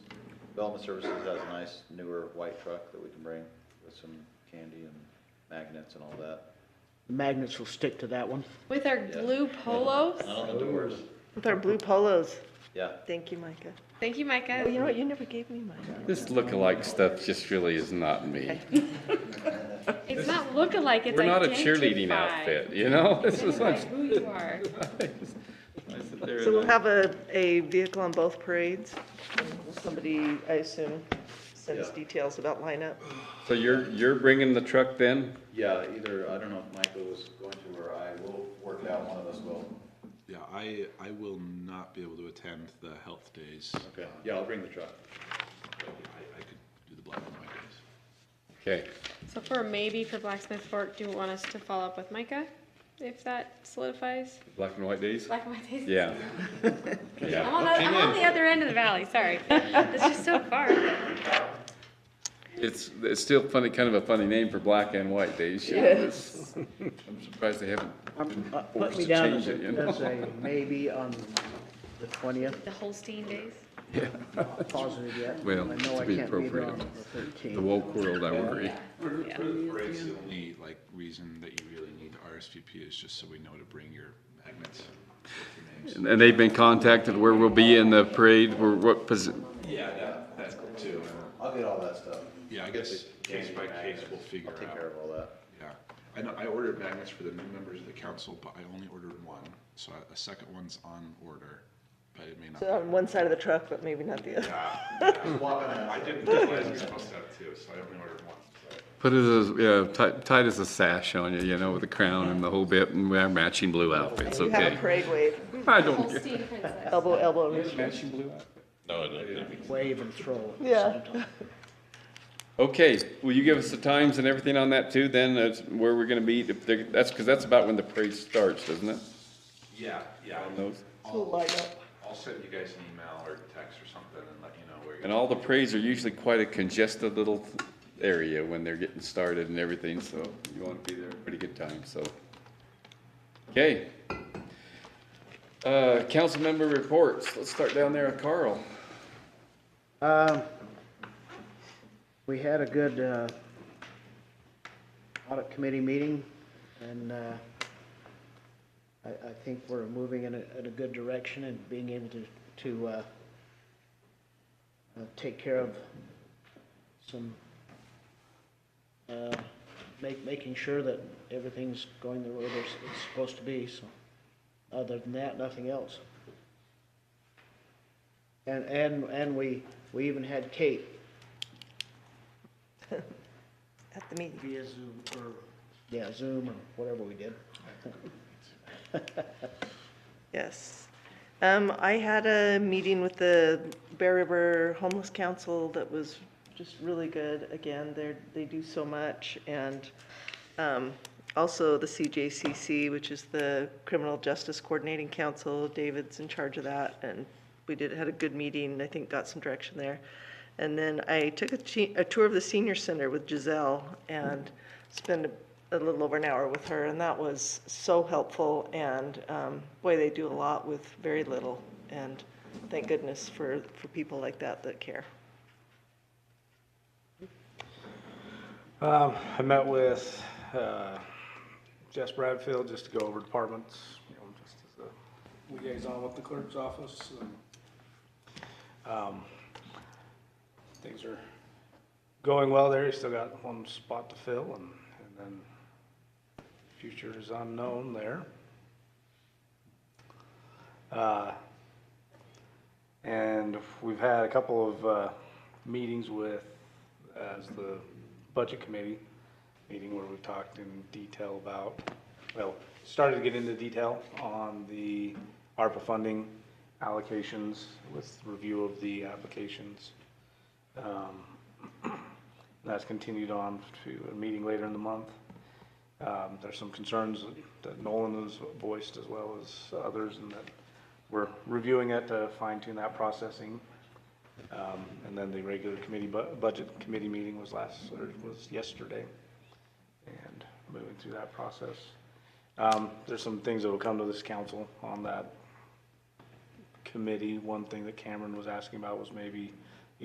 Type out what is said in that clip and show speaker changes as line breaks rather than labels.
Development Services has a nice newer white truck that we can bring with some candy and magnets and all that.
Magnets will stick to that one.
With our
Yeah.
blue polos.
Not on the doors.
With our blue polos.
Yeah,
Thank you, Micah.
Thank you, Micah.
Oh, you know what? You never gave me mine.
This lookalike stuff just really is not me.
It's not lookalike, it's
We're not a cheerleading
identify.
outfit, you know? This is
Identify
like.
Who you are.
So we'll have a, a vehicle on both parades. Somebody, I assume, sends
Yeah.
details about lineup.
So you're, you're bringing the truck then?
yeah, either, I don't know if Michael was going to or I will work it out, one of us will.
Yeah, I, I will not be able to attend the health days.
Okay, yeah, I'll bring the truck.
I, I could do the black and white days.
Okay.
So for a maybe for Blacksmith Fork, do you want us to follow up with Micah? If that solidifies?
Black and white days?
Black and white days?
Yeah.
I'm
Yeah.
on the, I'm on the other end of the valley, sorry. It's just so far.
It's, it's still funny, kind of a funny name for black and white days. you know? It's- I'm surprised they haven't.
I'm- uh, Put
Forced
me
to
down as
change it, you
a,
know?
as a maybe on the twentieth,
The Holstein days.
not positive yet.
Well,
I know
to
I
be
can't there
appropriate.
on the
The
13th.
woke world, I worry.
Yeah.
For the parades, the only like reason that you really need RSVP is just so we know to bring your magnets with your names.
And they've been contacted where we'll be in the parade, where, what, posi-
Yeah, that, that too.
I'll get all that stuff.
Yeah, I guess case by case we'll figure
I'll take care
out.
of all that.
Yeah, I know, I ordered magnets for the new members of the council, but I only ordered one, so I- a second one's on order, but it may not. be
So on one side of the truck, but maybe not the other.
I didn't realize we were supposed to have two, so I only ordered one.
Put it as, yeah, tight, tight as a sash on you, you know, with the crown and the whole bit, and we have matching blue outfits,
You have a
okay?
parade wave,
I don't care.
Holstein princess.
elbow, elbow. reach.
Wave and throw.
Yeah.
Okay, will you give us the times and everything on that too, then, that's where we're gonna be, if they're- that's, cause that's about when the parade starts, doesn't it?
Yeah, yeah.
On those?
We'll line up.
I'll send you guys an email or text or something and let you know where
And
you're.
all the parades are usually quite a congested little area when they're getting started and everything, so you wanna be there at a pretty good time, so. Okay. Uh, council member reports, let's start down there with Carl.
Um, We had a good uh, audit committee meeting, and uh, I I think we're moving in a, in a good direction and being able to, to uh, uh, take care of some, uh, make, making sure that everything's going the way it's it's supposed to be, so. Other than that, nothing else. And, and, and we, we even had Kate
At the meeting.
via Zoom or, yeah, Zoom or whatever we did.
Yes. Um, I had a meeting with the Bear River Homeless Council that was just really good. Again, they're, they do so much. And, um, also the CJCC, which is the Criminal Justice Coordinating Council. David's in charge of that. And we did, had a good meeting, I think got some direction there. And then I took a, che- a tour of the senior center with Giselle and spent a, a little over an hour with her, and that was so helpful. And um, boy, they do a lot with very little. And thank goodness for, for people like that that care.
Um, I met with, uh, Jess Bradfield just to go over departments, you know, just as a liaison with the clerk's office and, um, things are going well there. You still got one spot to fill and, and then future is unknown there. Uh, and we've had a couple of, uh, meetings with, as the budget committee, meeting where we've talked in detail about, well, started to get into detail on the ARPA funding allocations with review of the applications. Um, That's continued on to a meeting later in the month. Um, There's some concerns that Nolan has voiced as well as others and that we're reviewing it to fine tune that processing. Um, And then the regular committee, bu- budget committee meeting was last, or was yesterday, and moving through that process. Um, There's some things that will come to this council on that committee. One thing that Cameron was asking about was maybe